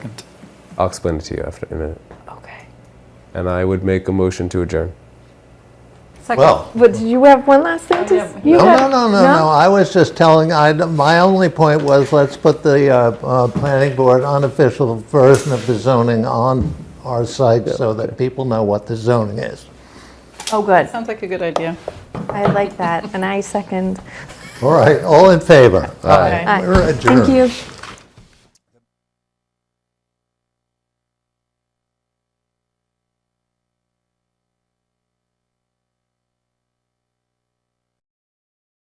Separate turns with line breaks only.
I'll explain it to you after in a minute.
Okay.
And I would make a motion to adjourn.
Well,
But did you have one last thing to? s- you
no, no,
had-
no, no, no, I was just telling, I, my only point was, let's put the uh, uh, planning board unofficial version of the zoning on our site so that people know what the zoning is.
Oh, good.
Sounds like a good idea.
I like that, and I second.
All right, all in favor?
Aye.
We're
Thank
adjourned.
you.